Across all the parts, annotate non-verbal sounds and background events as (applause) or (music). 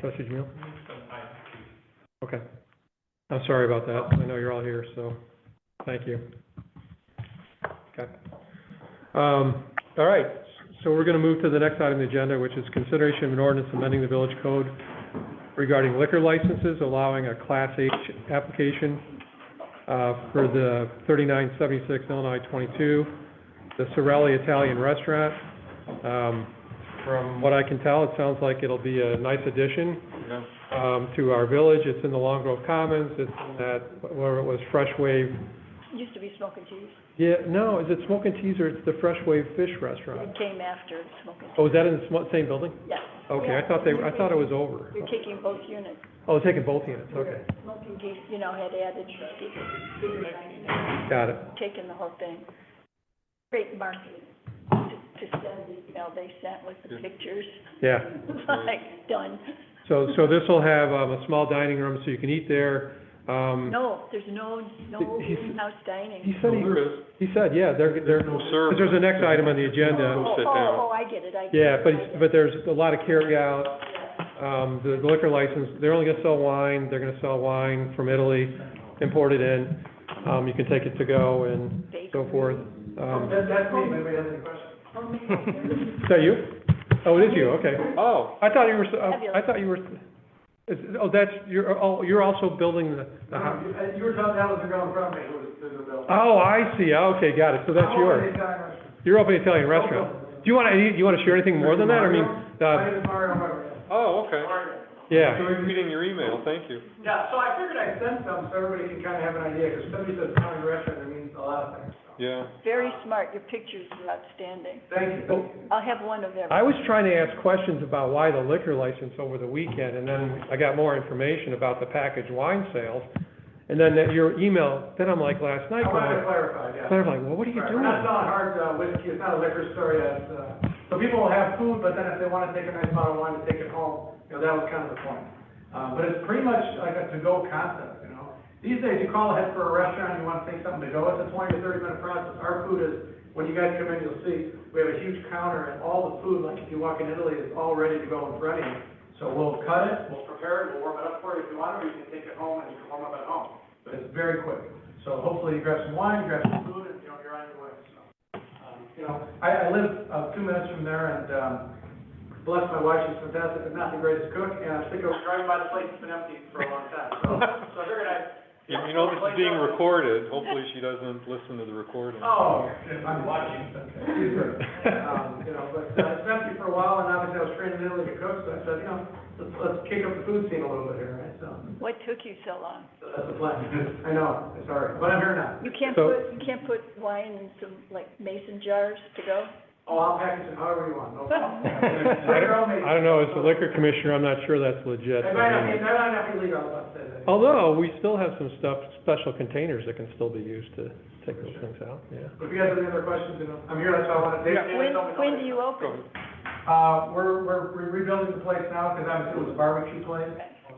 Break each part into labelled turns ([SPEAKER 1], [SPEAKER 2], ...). [SPEAKER 1] Trustee Jamil? Okay. I'm sorry about that. I know you're all here, so thank you. Okay. Um, All right, so we're going to move to the next item on the agenda, which is consideration of an ordinance amending the village code regarding liquor licenses, allowing a Class H application uh, for the 3976 Illinois 22, the Sorelli Italian Restaurant. Um, From what I can tell, it sounds like it'll be a nice addition
[SPEAKER 2] Yeah.
[SPEAKER 1] um, to our village. It's in the Long Grove Commons, it's in that, where it was Fresh Wave.
[SPEAKER 3] Used to be smoking cheese.
[SPEAKER 1] Yeah, no, is it Smoke and Teas or it's the Fresh Wave Fish Restaurant?
[SPEAKER 3] It came after smoking
[SPEAKER 1] Oh, is that in the smo- same building?
[SPEAKER 3] cheese. Yes.
[SPEAKER 1] Okay, I thought they, I thought it was over.
[SPEAKER 3] You're taking both units.
[SPEAKER 1] Oh, it's taking both units, okay,
[SPEAKER 3] Smoking cheese, you know, had added,
[SPEAKER 1] got it.
[SPEAKER 3] taking the whole thing. Great marketing to to send the email they sent with the
[SPEAKER 1] (laughs)
[SPEAKER 3] pictures. (laughs)
[SPEAKER 1] Yeah,
[SPEAKER 3] Like, done.
[SPEAKER 1] so, so this will have um, a small dining room, so you can eat there. Um,
[SPEAKER 3] No, there's no, no
[SPEAKER 1] He's-
[SPEAKER 3] in-house
[SPEAKER 1] He
[SPEAKER 3] dining.
[SPEAKER 1] said,
[SPEAKER 2] Well, there is.
[SPEAKER 1] he, he said, yeah, they're, they're,
[SPEAKER 2] No
[SPEAKER 1] 'cause
[SPEAKER 2] service.
[SPEAKER 1] there's a next item on the agenda.
[SPEAKER 3] Oh,
[SPEAKER 2] sit down.
[SPEAKER 3] oh, oh, I get it, I get it.
[SPEAKER 1] Yeah, but,
[SPEAKER 3] I get
[SPEAKER 1] it's-
[SPEAKER 3] it.
[SPEAKER 1] but there's a lot of carryout, um, the liquor license, they're only gonna sell wine, they're gonna sell wine from Italy, imported in, um, you can take it to go and so forth. Um,
[SPEAKER 4] (laughs) That, that's me, anybody has any questions? (laughs)
[SPEAKER 1] is that you? Oh, it is you, okay.
[SPEAKER 2] Oh,
[SPEAKER 1] I thought you were, s- oh, I thought you were, is, oh, that's, you're, oh, you're also building the, the house.
[SPEAKER 4] You uh, you were telling, that was the ground property, it was the, the building.
[SPEAKER 1] Oh, I see, okay, got it, so Oh, that's yours. You're opening an Italian restaurant. Do you wanna, do you wanna share anything more than that? I mean,
[SPEAKER 4] My
[SPEAKER 1] uh,
[SPEAKER 4] name is Mario Weber.
[SPEAKER 2] oh, okay.
[SPEAKER 1] yeah.
[SPEAKER 2] So we're reading your email, thank you.
[SPEAKER 4] Yeah, so I figured I'd send some, so everybody can kind of have an idea, because somebody says county restaurant, that means a lot of things, so.
[SPEAKER 2] Yeah.
[SPEAKER 3] Very smart, your pictures are outstanding.
[SPEAKER 4] Thank you,
[SPEAKER 1] Oh,
[SPEAKER 4] thank you.
[SPEAKER 3] I'll have one of every.
[SPEAKER 1] I was trying to ask questions about why the liquor license over the weekend, and then I got more information about the packaged wine sales. And then that your email, then I'm like last night,
[SPEAKER 4] I wanted to
[SPEAKER 1] going,
[SPEAKER 4] clarify, yeah.
[SPEAKER 1] they're like, well, what are you
[SPEAKER 4] Right, (laughs)
[SPEAKER 1] doing?
[SPEAKER 4] We're not selling hard uh, whiskey, it's not a liquor store yet, uh, so people will have food, but then if they wanna take a nice bottle of wine and take it home, you know, that was kind of the point. Uh, but it's pretty much like a to-go concept, you know? These days, you call ahead for a restaurant, you wanna take something to go, it's a twenty to thirty minute process. Our food is, when you guys come in, you'll see, we have a huge counter, and all the food, like if you walk in Italy, is all ready to go and ready. So we'll cut it, we'll prepare it, we'll warm it up for you if you want, or you can take it home and you can warm up at home. But it's very quick. So hopefully you grab some wine, grab some food, and, you know, you're on your way, so. um, You know, I, I live, uh, two minutes from there, and, um, bless my wife, she's fantastic, but not the greatest cook, and I think I was driving by the place, it's been empty for a long time, so, so I figured I'd.
[SPEAKER 2] You you know, this is being recorded, hopefully she doesn't listen to the recording.
[SPEAKER 4] Oh, I'm watching, okay. Um, you know, but, uh, it's been empty for a while, and obviously I was training Italy to cook, so I said, you know, let's, let's kick up the food scene a little bit here, right, so,
[SPEAKER 3] What took you so long?
[SPEAKER 4] so that's the (laughs) plan. I know, it's all right, but I'm here now.
[SPEAKER 3] You can't
[SPEAKER 1] So-
[SPEAKER 3] put, you can't put wine in some, like, mason jars to go?
[SPEAKER 4] Oh, I'll package it however you
[SPEAKER 3] (laughs)
[SPEAKER 4] want, no problem.
[SPEAKER 1] I don't, I don't know, as the liquor commissioner, I'm not sure that's legit.
[SPEAKER 4] It might not be, it might not be legal, but, uh,
[SPEAKER 1] Although, we still have some stuff, special containers that can still be used to take those things out, yeah.
[SPEAKER 4] if you guys have any other questions, you know, I'm here, that's all I wanted, Dave, Dave,
[SPEAKER 3] When,
[SPEAKER 4] tell me.
[SPEAKER 3] when do you
[SPEAKER 2] Go ahead.
[SPEAKER 3] open?
[SPEAKER 4] Uh, we're, we're we're rebuilding the place now, because obviously it was a barbecue place,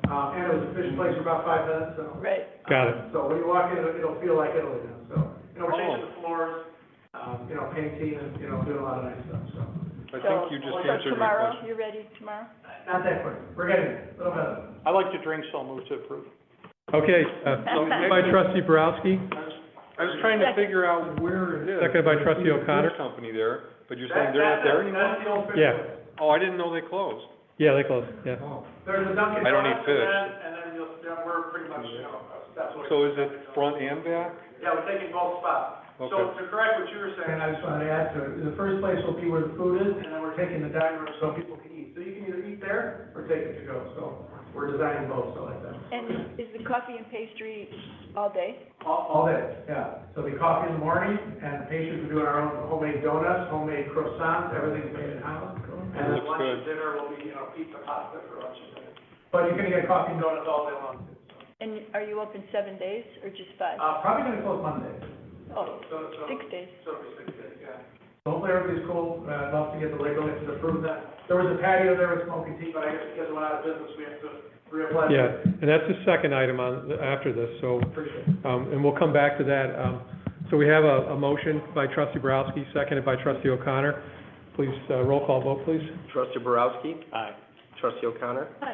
[SPEAKER 4] uh, and it was a fish place for about five minutes, so.
[SPEAKER 3] Right.
[SPEAKER 1] Got it.
[SPEAKER 4] So when you walk in, it'll, it'll feel like Italy now, so, you know, we're changing
[SPEAKER 2] Oh.
[SPEAKER 4] the floors, um, you know, painting and, you know, doing a lot of nice stuff, so.
[SPEAKER 2] I think you just
[SPEAKER 3] So- So
[SPEAKER 2] answered my
[SPEAKER 3] tomorrow,
[SPEAKER 2] question.
[SPEAKER 3] you're ready tomorrow?
[SPEAKER 4] Not that quick, we're getting there, a little bit.
[SPEAKER 5] I like to drink, so I'll move to approve.
[SPEAKER 1] Okay, uh, moved by trustee Borowski,
[SPEAKER 2] I was trying to figure out where it is.
[SPEAKER 1] Seconded by trustee
[SPEAKER 2] There's a
[SPEAKER 1] O'Connor.
[SPEAKER 2] beer Company there, but you're saying
[SPEAKER 4] That-
[SPEAKER 2] they're not
[SPEAKER 4] that-
[SPEAKER 2] there anymore?
[SPEAKER 4] That's the old fish
[SPEAKER 1] Yeah.
[SPEAKER 4] place.
[SPEAKER 2] Oh, I didn't know they closed.
[SPEAKER 1] yeah, they closed, yeah.
[SPEAKER 4] There's a Dunkin' Donuts.
[SPEAKER 2] I don't eat fish.
[SPEAKER 4] And then, and then you'll, then we're pretty much, you know, that's what.
[SPEAKER 2] So is it front and back?
[SPEAKER 4] Yeah, we're taking both spots. So
[SPEAKER 2] Okay.
[SPEAKER 4] to correct what you were saying, I just wanted to add to it, the first place will be where the food is, and then we're taking the dining room so people can eat. So you can either eat there or take it to go, so we're designing both, so like that.
[SPEAKER 3] And is the coffee and pastry all day?
[SPEAKER 4] All, all day, yeah. So the coffee in the morning, and the patients are doing our own homemade donuts, homemade croissants, everything's made in house. And then
[SPEAKER 2] Looks
[SPEAKER 4] lunch and dinner will be, you know, pizza, pasta for lunch and dinner. But you're gonna get coffee and donuts all day long, too. so.
[SPEAKER 3] And are you open seven days or just five?
[SPEAKER 4] Uh, probably gonna close Monday.
[SPEAKER 3] Oh,
[SPEAKER 4] So, so.
[SPEAKER 3] six days.
[SPEAKER 4] So it'll be six days, yeah. Hopefully everybody's cool, uh, I'd love to get the legal license approved that. There was a patio there with smoking tea, but I guess because it went out of business, we have to reapply.
[SPEAKER 1] Yeah, and that's the second item on, after this, so
[SPEAKER 4] Appreciate it.
[SPEAKER 1] Um, and we'll come back to that. Um, so we have a, a motion by trustee Borowski, seconded by trustee O'Connor. Please, uh, roll call vote, please.
[SPEAKER 6] Trustee Borowski?
[SPEAKER 5] Aye.
[SPEAKER 6] Trustee O'Connor?